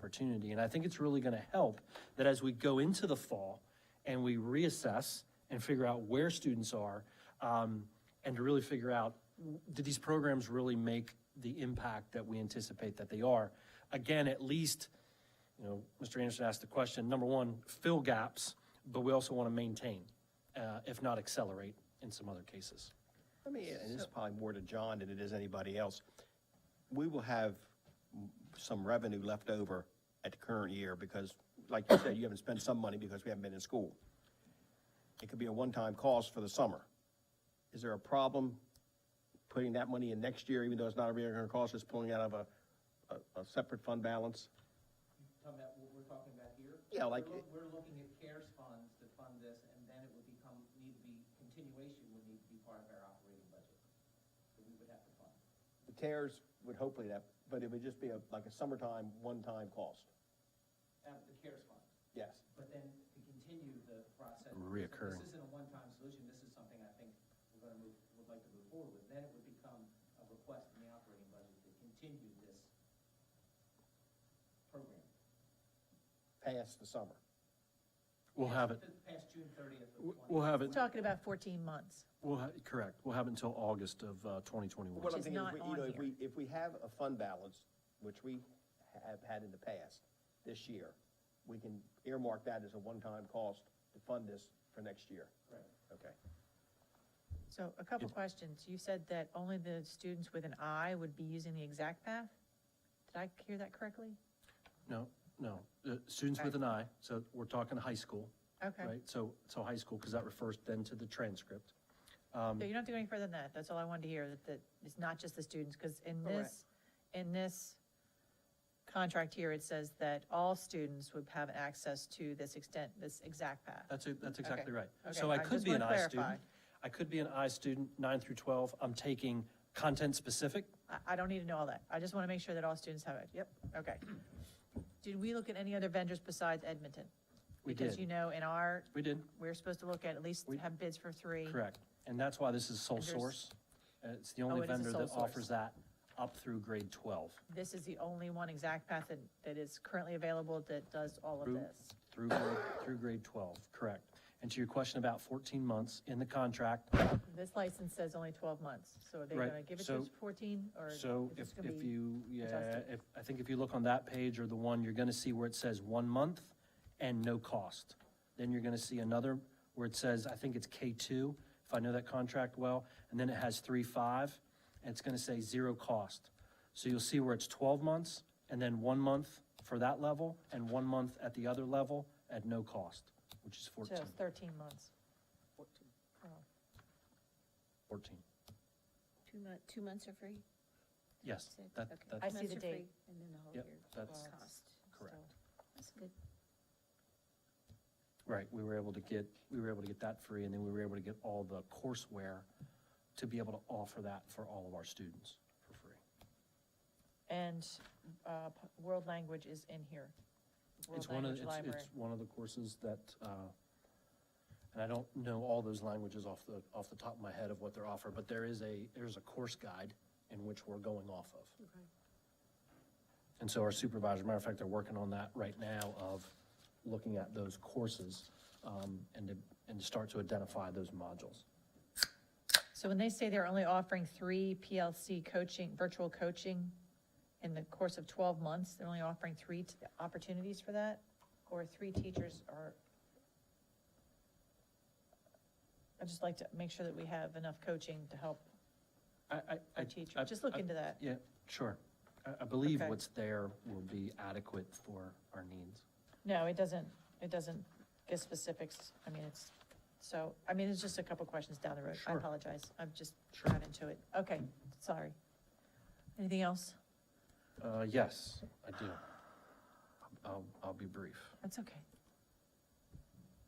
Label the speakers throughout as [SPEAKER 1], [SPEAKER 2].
[SPEAKER 1] opportunity. And I think it's really gonna help that as we go into the fall and we reassess and figure out where students are, um, and to really figure out, w- did these programs really make the impact that we anticipate that they are? Again, at least, you know, Mr. Anderson asked the question, number one, fill gaps, but we also want to maintain, uh, if not accelerate in some other cases.
[SPEAKER 2] Let me, and this is probably more to John than it is anybody else. We will have m- some revenue left over at the current year because, like you said, you haven't spent some money because we haven't been in school. It could be a one-time cost for the summer. Is there a problem putting that money in next year, even though it's not a recurring cost, it's pulling out of a, a, a separate fund balance?
[SPEAKER 3] Talking about what we're talking about here?
[SPEAKER 2] Yeah, like-
[SPEAKER 3] We're loo- We're looking at CARES funds to fund this, and then it would become, need to be, continuation would need to be part of our operating budget that we would have to fund.
[SPEAKER 2] The CARES would hopefully that, but it would just be a, like a summertime, one-time cost.
[SPEAKER 3] Out of the CARES fund,
[SPEAKER 2] Yes.
[SPEAKER 3] but then to continue the process.
[SPEAKER 1] Reoccurring.
[SPEAKER 3] This isn't a one-time solution, this is something I think we're gonna move, would like to move forward with. Then it would become a request in the operating budget to continue this program.
[SPEAKER 2] Past the summer.
[SPEAKER 1] We'll have it,
[SPEAKER 3] Past June thirtieth of
[SPEAKER 1] w-
[SPEAKER 3] twenty.
[SPEAKER 1] we'll have it,
[SPEAKER 4] Talking about 14 months.
[SPEAKER 1] we'll, ha- correct, we'll have it until August of uh, 2021.
[SPEAKER 2] What I'm
[SPEAKER 4] is
[SPEAKER 2] thinking is,
[SPEAKER 4] not
[SPEAKER 2] we- you
[SPEAKER 4] on
[SPEAKER 2] know, if
[SPEAKER 4] here.
[SPEAKER 2] we, if we have a fund balance, which we have had in the past, this year, we can earmark that as a one-time cost to fund this for next year.
[SPEAKER 3] Right.
[SPEAKER 2] Okay.
[SPEAKER 4] So a couple questions. You said that only the students with an I would be using the exact path? Did I hear that correctly?
[SPEAKER 1] No, no, Uh, students with an eye, so we're talking high school,
[SPEAKER 4] Okay.
[SPEAKER 1] right? So, so high school, because that refers then to the transcript. Um,
[SPEAKER 4] So you don't have to go any further than that. That's all I wanted to hear, that, that it's not just the students, because in this, in this contract here, it says that all students would have access to this extent, this exact path.
[SPEAKER 1] That's, it- that's exactly right.
[SPEAKER 4] Okay,
[SPEAKER 1] So I
[SPEAKER 4] I
[SPEAKER 1] could
[SPEAKER 4] just
[SPEAKER 1] be an
[SPEAKER 4] wanna
[SPEAKER 1] I student.
[SPEAKER 4] clarify.
[SPEAKER 1] I could be an I student, nine through 12. I'm taking content-specific.
[SPEAKER 4] I, I don't need to know all that. I just want to make sure that all students have it. Yep, okay. Did we look at any other vendors besides Edmonton?
[SPEAKER 1] We
[SPEAKER 4] Because
[SPEAKER 1] did.
[SPEAKER 4] you know, in our,
[SPEAKER 1] We did,
[SPEAKER 4] we're supposed to look at at least
[SPEAKER 1] We-
[SPEAKER 4] have bids for three.
[SPEAKER 1] correct. And that's why this is sole
[SPEAKER 4] And there's-
[SPEAKER 1] source. Uh, It's the
[SPEAKER 4] Oh,
[SPEAKER 1] only
[SPEAKER 4] it is a
[SPEAKER 1] vendor
[SPEAKER 4] sole
[SPEAKER 1] that
[SPEAKER 4] source.
[SPEAKER 1] offers that up through grade 12,
[SPEAKER 4] This is the only one exact path that, that is currently available that does all of
[SPEAKER 1] Group.
[SPEAKER 4] this.
[SPEAKER 1] through, grade- through grade 12, correct. And to your question about 14 months in the contract,
[SPEAKER 4] This license says only twelve months, so are they
[SPEAKER 1] Right,
[SPEAKER 4] gonna give it
[SPEAKER 1] so-
[SPEAKER 4] to us fourteen, or?
[SPEAKER 1] So
[SPEAKER 4] is
[SPEAKER 1] if,
[SPEAKER 4] this gonna
[SPEAKER 1] if
[SPEAKER 4] be-
[SPEAKER 1] you, yeah,
[SPEAKER 4] adjusted.
[SPEAKER 1] if, I think if you look on that page or the one, you're gonna see where it says one month and no cost. Then you're gonna see another where it says, I think it's K two, if I know that contract well, and then it has three, five, and it's gonna say zero cost. So you'll see where it's twelve months and then one month for that level and one month at the other level at no cost, which is
[SPEAKER 4] So
[SPEAKER 1] fourteen.
[SPEAKER 4] it's thirteen months. Oh, Fourteen.
[SPEAKER 1] Fourteen.
[SPEAKER 5] Two months, two months are free?
[SPEAKER 1] Yes,
[SPEAKER 5] Six,
[SPEAKER 1] that,
[SPEAKER 5] okay.
[SPEAKER 1] that,
[SPEAKER 4] I see
[SPEAKER 5] Months
[SPEAKER 4] the
[SPEAKER 5] are free,
[SPEAKER 4] date.
[SPEAKER 5] And then the whole
[SPEAKER 1] Yep,
[SPEAKER 5] year.
[SPEAKER 1] that's
[SPEAKER 5] cost.
[SPEAKER 1] correct.
[SPEAKER 5] So, That's good.
[SPEAKER 1] Right, we were able to get, we were able to get that free, and then we were able to get all the courseware to be able to offer that for all of our students for free.
[SPEAKER 4] And, uh, p- world language is in here. World
[SPEAKER 1] It's one of,
[SPEAKER 4] language
[SPEAKER 1] it's,
[SPEAKER 4] library.
[SPEAKER 1] it's one of the courses that, uh, and I don't know all those languages off the, off the top of my head of what they're offered, but there is a, there's a course guide in which we're going off of. And so our supervisor, matter of fact, they're working on that right now of looking at those courses, um, and to, and to start to identify those modules.
[SPEAKER 4] So when they say they're only offering three PLC coaching, virtual coaching in the course of twelve months, they're only offering three t- opportunities for that? Or three teachers are? I'd just like to make sure that we have enough coaching to help
[SPEAKER 1] I, I- I.
[SPEAKER 4] our teacher.
[SPEAKER 1] I-
[SPEAKER 4] Just look
[SPEAKER 1] I-
[SPEAKER 4] into that.
[SPEAKER 1] Yeah, sure. I, I believe
[SPEAKER 4] Okay.
[SPEAKER 1] what's there will be adequate for our needs.
[SPEAKER 4] No, it doesn't, it doesn't give specifics. I mean, it's, so, I mean, it's just a couple questions down the road. I
[SPEAKER 1] Sure.
[SPEAKER 4] apologize. I've just
[SPEAKER 1] Sure.
[SPEAKER 4] got into it. Okay, sorry. Anything else?
[SPEAKER 1] Uh, yes, I do. I'll, I'll be brief,
[SPEAKER 4] That's okay.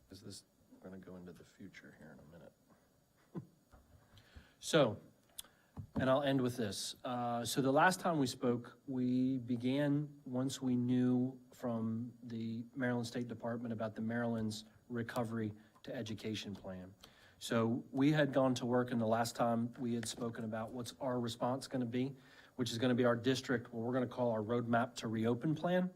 [SPEAKER 1] because this, we're gonna go into the future here in a minute. So, and I'll end with this. Uh, so the last time we spoke, we began, once we knew from the Maryland State Department about the Maryland's Recovery to Education Plan. So we had gone to work and the last time we had spoken about what's our response gonna be, which is gonna be our district, what we're gonna call our Roadmap to Reopen Plan.